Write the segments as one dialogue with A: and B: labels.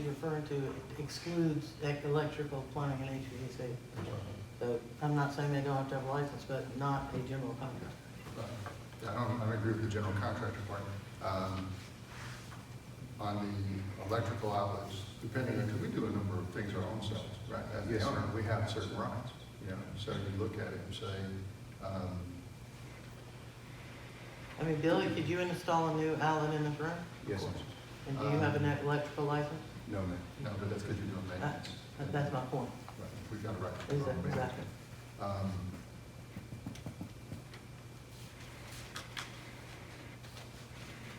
A: referring to excludes ec- electrical, plumbing, and HVAC. So I'm not saying they don't have to have a license, but not a general contractor.
B: Yeah, I don't, I don't agree with the general contractor part. Um, On the electrical outlets, depending on, 'cause we do a number of things our own selves, right? As the owner, we have certain rights, you know, so you look at it and say, um,
A: I mean, Billy, could you install a new outlet in this room?
C: Yes.
A: And do you have
B: Um,
A: an electrical license?
C: No, ma'am.
B: no, but that's because you're doing
A: That-
B: maintenance.
A: Uh, That's my point.
B: Right, We got a right. to
A: Is
B: our
A: that,
B: own maintenance.
A: exactly.
B: Um,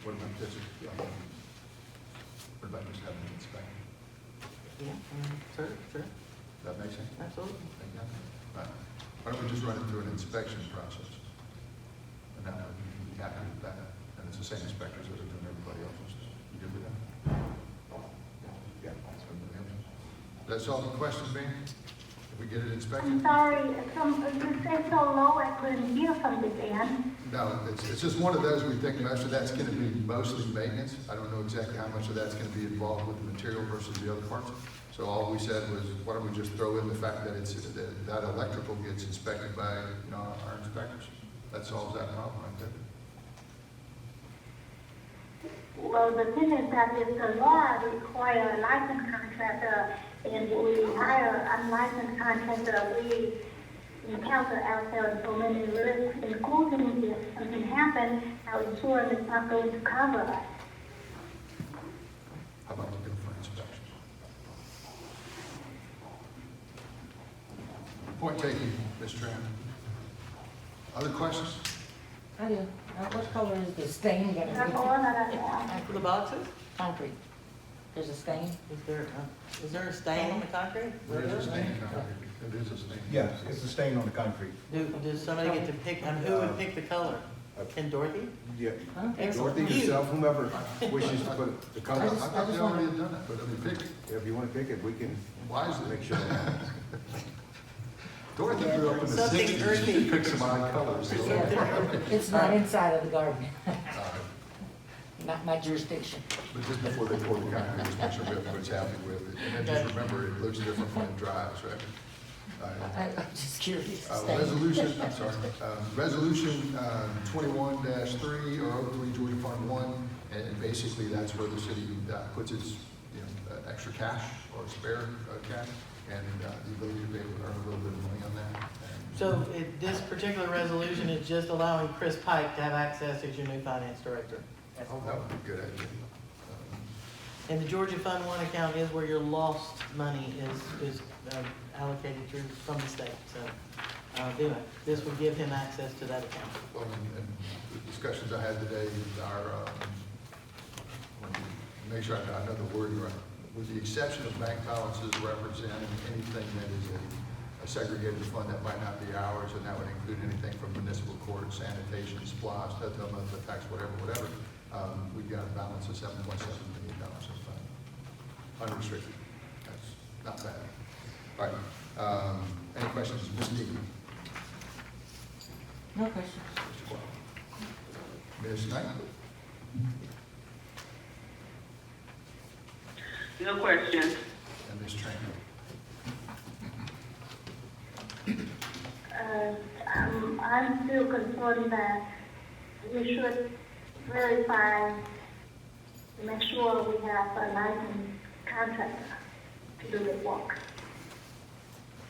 B: What about just, um, what about just having an inspection?
A: Yeah, I mean, sure, sure,
B: Does that make sense?
A: absolutely.
B: Right. Why don't we just run it through an inspection process? And that, we'd be happy with that, and it's the same inspectors that are doing everybody else's. You good with that? Yeah. so everybody else. That solve the question, Ben? If we get it
D: I'm
B: inspected?
D: sorry, some, you said so low I couldn't hear from the band.
B: No, it's, it's just one of those, we think most of that's gonna be mostly maintenance. I don't know exactly how much of that's gonna be involved with the material versus the other parts. So all we said was, why don't we just throw in the fact that it's, that, that electrical gets inspected by, you know, our inspectors? That solves that problem right there.
D: Well, the thing is that if the law require a licensed contractor and we hire unlicensed contractor, we encounter ourselves so many risks, including if something happens, our insurance is not going to cover us.
B: How about looking for inspections? Point taken, Ms. Tran. Other questions?
E: I do. Uh, What color is the stain gonna
D: That's all
E: be?
D: that I have.
A: For the boxes,
E: Concrete. There's a stain?
A: is there, uh, is there a stain on the concrete?
B: There is a stain out here. There is a stain.
C: Yes, it's a stain on the concrete.
A: Do, does somebody get to pick, and who would pick the color?
B: Uh,
A: Can Dorothy?
C: Yeah.
E: I don't think so.
C: Dorothy
A: You.
C: yourself, whomever wishes to put the
B: I
E: I
C: color,
E: just-
B: thought they already had done it, but I mean, pick,
C: if you want to pick it, we can
B: why is
C: make
B: it?
C: sure.
B: Dorothy grew up in the
A: Something
B: sixties,
A: earthy.
B: she picked some odd colors. so-
E: It's not inside of the garden,
B: Uh,
E: not my jurisdiction.
B: But just before they pour the concrete, just make sure everybody's happy with it, and then just remember, it looks different when it dries, right? All right.
E: I- I'm just curious.
B: Uh,
E: Stain.
B: Resolution, I'm sorry, uh, resolution um, twenty-one three or oh three Georgia Fund one, and and basically that's where the city uh, puts its, you know, uh, extra cash or spare uh, cash, and uh, the ability to be able to earn a little bit of money on that. And
A: So it, this particular resolution is just allowing Chris Pike to have access as your new finance director.
B: Oh, That would be a good idea. Um,
A: And the Georgia Fund One account is where your lost money is, is um, allocated through, from the state, so, uh, anyway, this would give him access to that account.
B: Well, and- and the discussions I had today with our, um, let me make sure I got another word right. With the exception of bank balances representing anything that is a- a segregated fund that might not be ours, and that would include anything from municipal court, sanitation, supplies, hotel, motel tax, whatever, whatever, um, we've got a balance of seven point seven million dollars in fund, unrestricted. That's not bad. All right, um, any questions, Ms. Deegan?
E: No questions.
B: Ms. Knight?
F: No question.
B: And Ms. Tran?
D: Uh, um, I'm still concerned that we should verify, make sure we have a licensed contractor to do the work.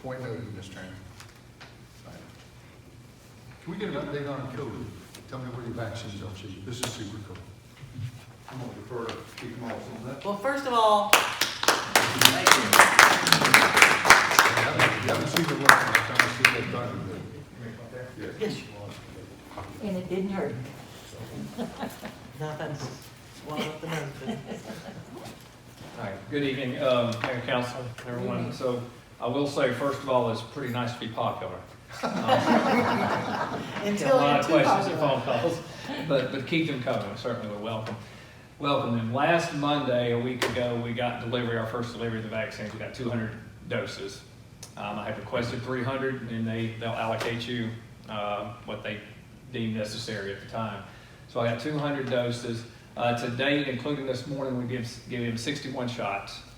B: Point noted, Ms. Tran. Right. Can we get an update on COVID? Tell me where your vaccines are, Chief. This is super cool.
G: I'm gonna defer to Chief Moss on that.
A: Well, first of all, thank you.
B: I haven't- I haven't seen the one, I'm trying to see that document.
A: Yes,
E: And it didn't hurt.
A: not that, swallow up the nose, but-
H: Hi, good evening, um, Mayor and Council, everyone. So I will say, first of all, it's pretty nice to be popular. Um,
A: until
H: A lot
A: you're
H: of
A: too
H: questions
A: popular.
H: and phone calls, but, but keep them coming, We certainly we welcome, welcome them. Last Monday, a week ago, we got delivery, our first delivery of the vaccines, we got two hundred doses. Um, I had requested three hundred, and they, they'll allocate you, uh, what they deem necessary at the time. So I got two hundred doses, uh, to date, including this morning, we give, give him sixty-one shots.